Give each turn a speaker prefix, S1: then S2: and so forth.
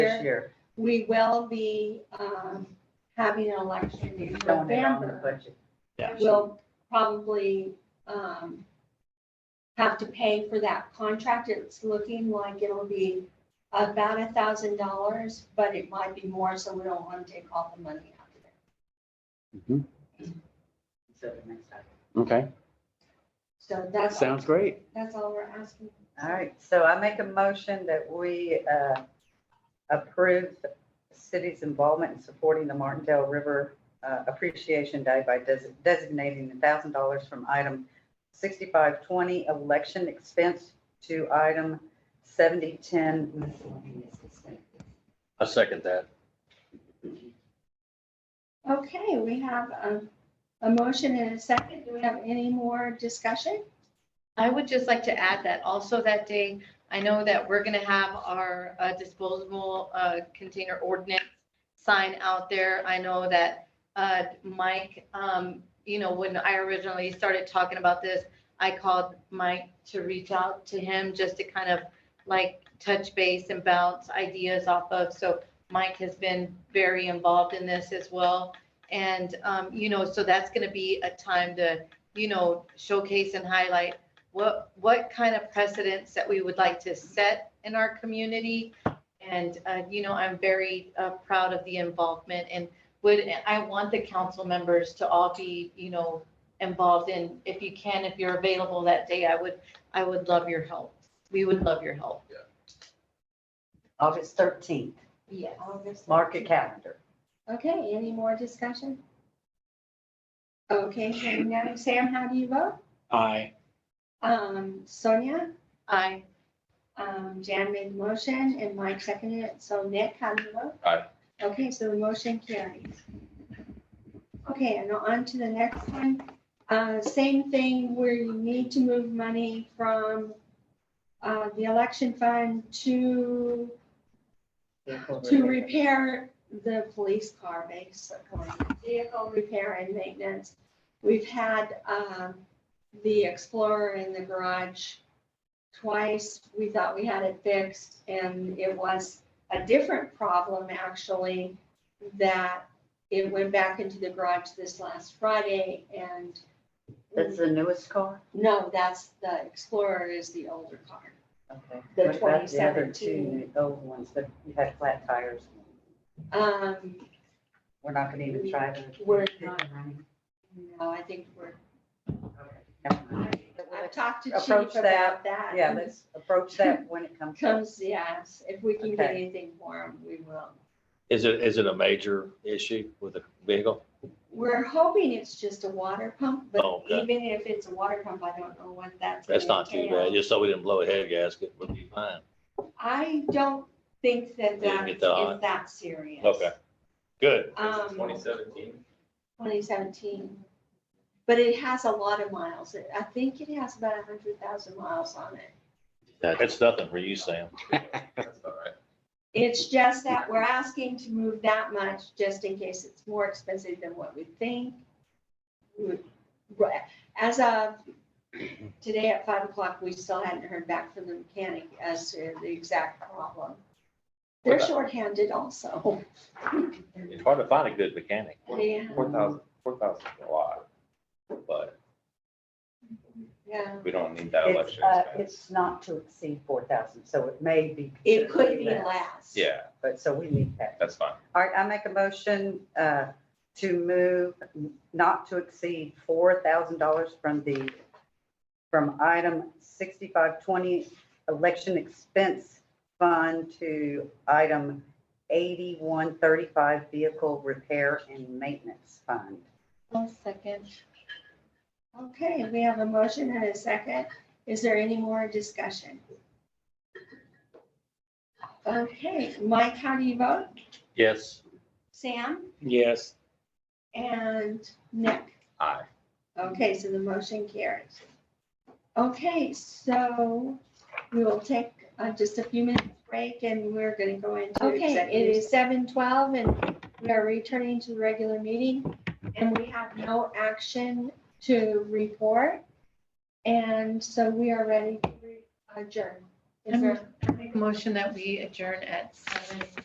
S1: next year.
S2: we will be, um, having an election in
S1: Don't it on the
S2: November.
S1: budget.
S3: Yeah.
S2: We'll probably, um, have to pay for that contract. It's looking like it'll be about a thousand dollars, but it might be more, so we don't want to take all the money out of it.
S3: Mhm.
S1: So the next time.
S3: Okay,
S2: So that's,
S3: sounds great.
S2: that's all we're asking.
S1: All right, so I make a motion that we uh, approve the city's involvement in supporting the Martindale River uh, Appreciation Day by des- designating thousand dollars from item sixty-five twenty election expense to item seventy-ten miscellaneous expense.
S4: I second that.
S2: Okay, we have a, a motion and a second. Do we have any more discussion?
S5: I would just like to add that also that day, I know that we're gonna have our uh, disposable uh, container ordinance sign out there. I know that uh, Mike, um, you know, when I originally started talking about this, I called Mike to reach out to him just to kind of like touch base and bounce ideas off of. So Mike has been very involved in this as well. And, um, you know, so that's gonna be a time to, you know, showcase and highlight what, what kind of precedents that we would like to set in our community. And, uh, you know, I'm very uh, proud of the involvement and would, I want the council members to all be, you know, involved in, if you can, if you're available that day, I would, I would love your help. We would love your help.
S1: August thirteenth,
S5: Yes.
S2: August
S1: mark your calendar.
S2: Okay, any more discussion? Okay, hearing none. Sam, how do you vote?
S3: Aye.
S2: Um, Sonia,
S5: I,
S2: um, Jan made the motion and Mike seconded it. So Nick, how do you vote?
S4: Aye.
S2: Okay, so the motion carries. Okay, and on to the next one. Uh, same thing where you need to move money from, uh, the election fund to to repair the police car, basically, vehicle repair and maintenance. We've had, um, the Explorer in the garage twice. We thought we had it fixed and it was a different problem, actually, that it went back into the garage this last Friday and
S1: That's the newest car?
S2: no, that's, the Explorer is the older car.
S1: Okay.
S2: The
S1: What about the other
S2: 2017?
S1: two old ones that you had flat tires?
S2: Um,
S1: We're not gonna even try them.
S2: We're not. no, I think we're,
S1: Never mind.
S2: I've talked to Chief
S1: Approach that,
S2: about that.
S1: Yeah, let's approach that when it comes. up.
S2: Comes, yes, if we can get
S1: Okay.
S2: anything for them, we will.
S4: Is it, is it a major issue with the vehicle?
S2: We're hoping it's just a water pump, but
S4: Oh, okay.
S2: even if it's a water pump, I don't know what that's.
S4: That's
S2: gonna
S4: not too
S2: entail.
S4: bad, just so we didn't blow a head gasket, we'll be fine.
S2: I don't think that
S4: Didn't
S2: that
S4: get
S2: is
S4: that high.
S2: that serious.
S4: Okay, good.
S2: Um,
S6: Twenty seventeen.
S2: 2017. But it has a lot of miles. It- I think it has about 100,000 miles on it.
S4: It's nothing for you, Sam.
S6: That's all right.
S2: It's just that we're asking to move that much just in case it's more expensive than what we think. We- right. As of today at five o'clock, we still hadn't heard back from the mechanic as to the exact problem. They're shorthanded also.
S4: It's hard to find a good mechanic.
S2: Yeah,
S6: Four thousand, four thousand is a lot, but
S2: yeah.
S6: we don't need that
S1: It's,
S6: election
S1: uh,
S6: expense.
S1: it's not to exceed four thousand, so it may be.
S2: It could be
S1: considerably less,
S2: less.
S6: Yeah,
S1: But, so we need that.
S6: that's fine.
S1: All right, I make a motion, uh, to move not to exceed four thousand dollars from the, from item sixty-five twenty election expense fund to item eighty-one thirty-five vehicle repair and maintenance fund.
S5: one second.
S2: Okay, we have a motion and a second. Is there any more discussion? Okay, Mike, how do you vote?
S4: Yes,
S2: Sam
S3: Yes.
S2: and Nick.
S6: Aye.
S2: Okay, so the motion carries. Okay, so we will take uh, just a few minutes break and we're going to go into. Okay, it is seven twelve and we are returning to the regular meeting and we have no action to report. And so we are ready to adjourn. Is there?
S5: Motion that we adjourn at seven